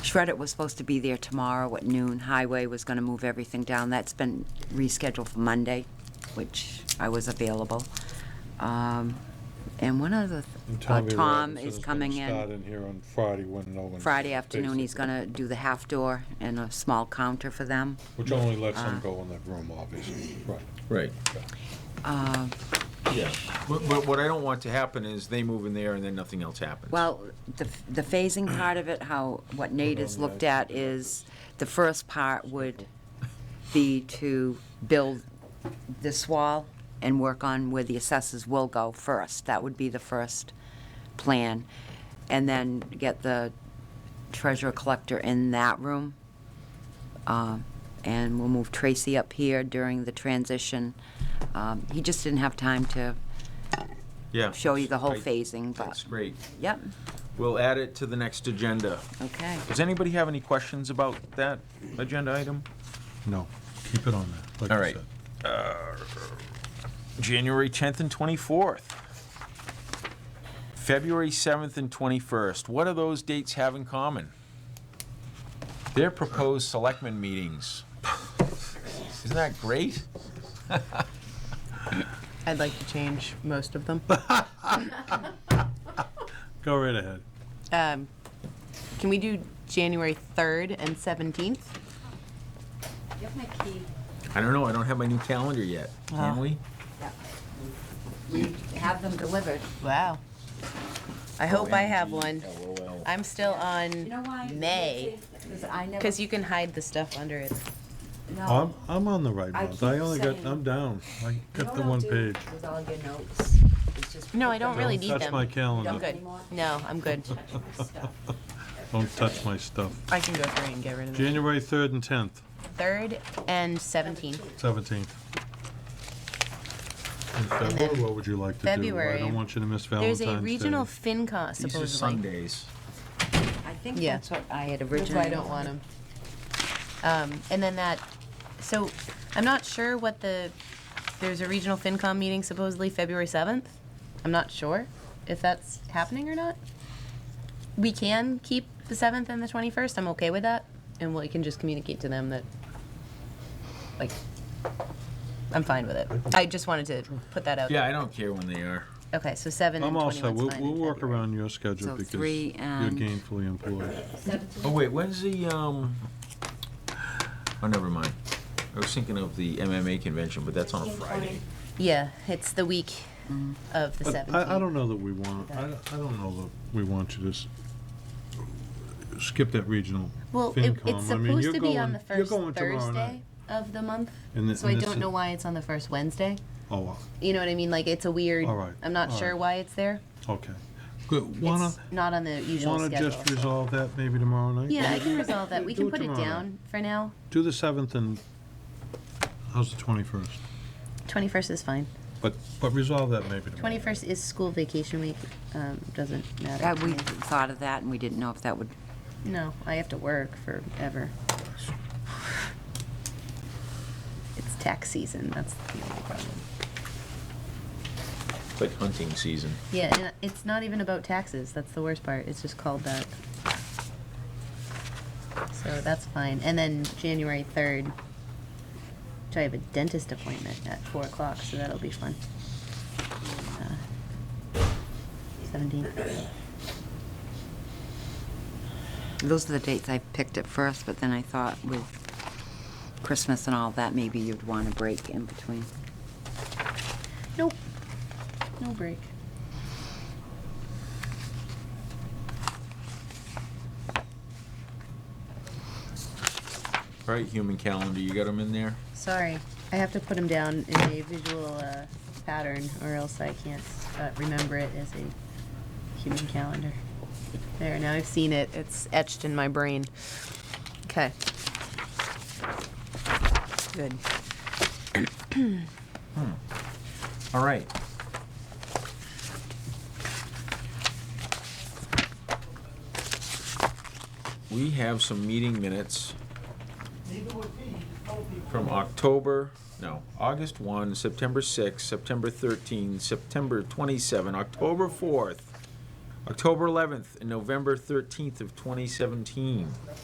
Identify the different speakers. Speaker 1: Shredder was supposed to be there tomorrow at noon. Highway was going to move everything down. That's been rescheduled for Monday, which I was available. Um, And one other, th-
Speaker 2: And
Speaker 1: uh,
Speaker 2: Tommy
Speaker 1: Tom
Speaker 2: Robinson
Speaker 1: is
Speaker 2: gonna
Speaker 1: coming
Speaker 2: Start
Speaker 1: in
Speaker 2: in here on Friday when no one.
Speaker 1: Friday afternoon. He's
Speaker 2: basically,
Speaker 1: going to do the half door and a small counter for them.
Speaker 2: Which only lets them go in that room, obviously, right.
Speaker 3: Right.
Speaker 1: Uh,
Speaker 3: Yeah. But, but what I don't want to happen is they move in there and then nothing else happens.
Speaker 1: Well, the the phasing part of it, how, what Nate has looked at is, the first part would be to build this wall and work on where the assessors will go first. That would be the first plan. And then get the treasurer collector in that room. Um, And we'll move Tracy up here during the transition. Um, He just didn't have time to
Speaker 3: Yeah.
Speaker 1: show you the whole
Speaker 3: Right.
Speaker 1: phasing, but,
Speaker 3: That's great.
Speaker 1: yep,
Speaker 3: We'll add it to the next agenda.
Speaker 1: okay.
Speaker 3: Does anybody have any questions about that agenda item?
Speaker 2: No, keep it on there. like
Speaker 3: All
Speaker 2: you
Speaker 3: right.
Speaker 2: said.
Speaker 3: January 10th and 24th. February 7th and 21st. What do those dates have in common? They're proposed selectmen meetings. Isn't that great?
Speaker 4: I'd like to change most of them.
Speaker 2: Go right ahead.
Speaker 4: Um, Can we do January 3rd and 17th?
Speaker 1: You have my key.
Speaker 3: I don't know, I don't have my new calendar yet. Can we?
Speaker 1: We have them delivered.
Speaker 4: Wow. I hope I have one.
Speaker 3: LOL.
Speaker 4: I'm still on,
Speaker 1: know why?
Speaker 4: May.
Speaker 1: Because I never.
Speaker 4: because you can hide the stuff under it.
Speaker 2: I'm, I'm on the right
Speaker 1: I
Speaker 2: ones. I
Speaker 1: keep
Speaker 2: only got,
Speaker 1: saying-
Speaker 2: I'm down. I
Speaker 1: You
Speaker 2: got the
Speaker 1: don't
Speaker 2: one
Speaker 1: do
Speaker 2: page.
Speaker 1: With all your notes. It's just
Speaker 4: No, I
Speaker 1: put
Speaker 4: don't
Speaker 1: them-
Speaker 4: really
Speaker 2: Don't
Speaker 4: need
Speaker 2: touch
Speaker 4: them.
Speaker 2: my
Speaker 1: Don't
Speaker 2: calendar.
Speaker 4: Good.
Speaker 1: anymore?
Speaker 4: No, I'm good.
Speaker 2: Don't touch my stuff.
Speaker 4: I can go through and get rid of it.
Speaker 2: January 3rd and 10th,
Speaker 4: 3rd and 17th.
Speaker 2: 17th. In February, what would you like to do? I
Speaker 4: February,
Speaker 2: don't want you to miss Valentine's
Speaker 4: There's
Speaker 2: Day.
Speaker 4: a regional FinCon
Speaker 3: These are
Speaker 4: supposedly.
Speaker 3: Sundays.
Speaker 1: I think
Speaker 4: Yeah.
Speaker 1: that's what I had
Speaker 4: That's
Speaker 1: originally.
Speaker 4: why I don't want them. Um, and then that, so I'm not sure what the, there's a regional FinCom meeting supposedly February 7th. I'm not sure if that's happening or not. We can keep the 7th and the 21st. I'm okay with that. And we can just communicate to them that, like, I'm fine with it. I just wanted to put that out.
Speaker 3: Yeah, I don't care when they are.
Speaker 4: Okay, so 7 and
Speaker 2: I'm
Speaker 4: 21's
Speaker 2: also,
Speaker 4: fine.
Speaker 2: we'll,
Speaker 4: in
Speaker 2: we'll work
Speaker 4: February.
Speaker 2: around your schedule
Speaker 1: So
Speaker 2: because you're
Speaker 1: three and-
Speaker 2: gainfully employed.
Speaker 3: Oh, wait, when's the, um, oh, never mind. I was thinking of the MMA convention, but that's on a Friday.
Speaker 4: Yeah, it's the week of the 17th.
Speaker 2: But I, I don't know that we want, I, I don't know that we want you to s- skip that regional
Speaker 4: Well, it,
Speaker 2: FinCom.
Speaker 4: it's
Speaker 2: I mean,
Speaker 4: supposed
Speaker 2: you're
Speaker 4: to be on
Speaker 2: going-
Speaker 4: the
Speaker 2: you're
Speaker 4: first
Speaker 2: going tomorrow
Speaker 4: Thursday
Speaker 2: night.
Speaker 4: of the month,
Speaker 2: And the-
Speaker 4: so I
Speaker 2: and this-
Speaker 4: don't know why it's on the first Wednesday.
Speaker 2: Oh, wow.
Speaker 4: You know what I mean? Like, it's a weird,
Speaker 2: All right,
Speaker 4: I'm not
Speaker 2: all
Speaker 4: sure
Speaker 2: right.
Speaker 4: why it's there.
Speaker 2: okay. Good, wanna,
Speaker 4: It's not on the usual
Speaker 2: wanna
Speaker 4: schedule.
Speaker 2: just resolve that maybe tomorrow night?
Speaker 4: Yeah, I can resolve that. We
Speaker 2: Do
Speaker 4: can
Speaker 2: it
Speaker 4: put it
Speaker 2: tomorrow night.
Speaker 4: down for now.
Speaker 2: Do the seventh and, how's the twenty-first?
Speaker 4: 21st is fine.
Speaker 2: But, but resolve that maybe tomorrow.
Speaker 4: 21st is school vacation week, um, doesn't matter.
Speaker 1: Uh,
Speaker 4: to
Speaker 1: we
Speaker 4: me.
Speaker 1: thought of that and we didn't know if that would,
Speaker 4: No, I have to work forever. It's tax season, that's the only problem.
Speaker 3: It's like hunting season.
Speaker 4: Yeah, and it's not even about taxes. That's the worst part. It's just called that. So that's fine. And then January third, I have a dentist appointment at four o'clock, so that'll be fun. Uh, Seventeen.
Speaker 1: those are the dates I picked at first, but then I thought with Christmas and all that, maybe you'd want a break in between.
Speaker 4: Nope. No break.
Speaker 3: All right, human calendar, you got them in there?
Speaker 4: Sorry, I have to put them down in a visual uh, pattern, or else I can't uh, remember it as a human calendar. There, now I've seen it. It's etched in my brain. Okay. Good.
Speaker 3: All right. We have some meeting minutes from October, no, August 1, September 6, September 13, September 27, October 4th, October 11th, and November 13th of 2017.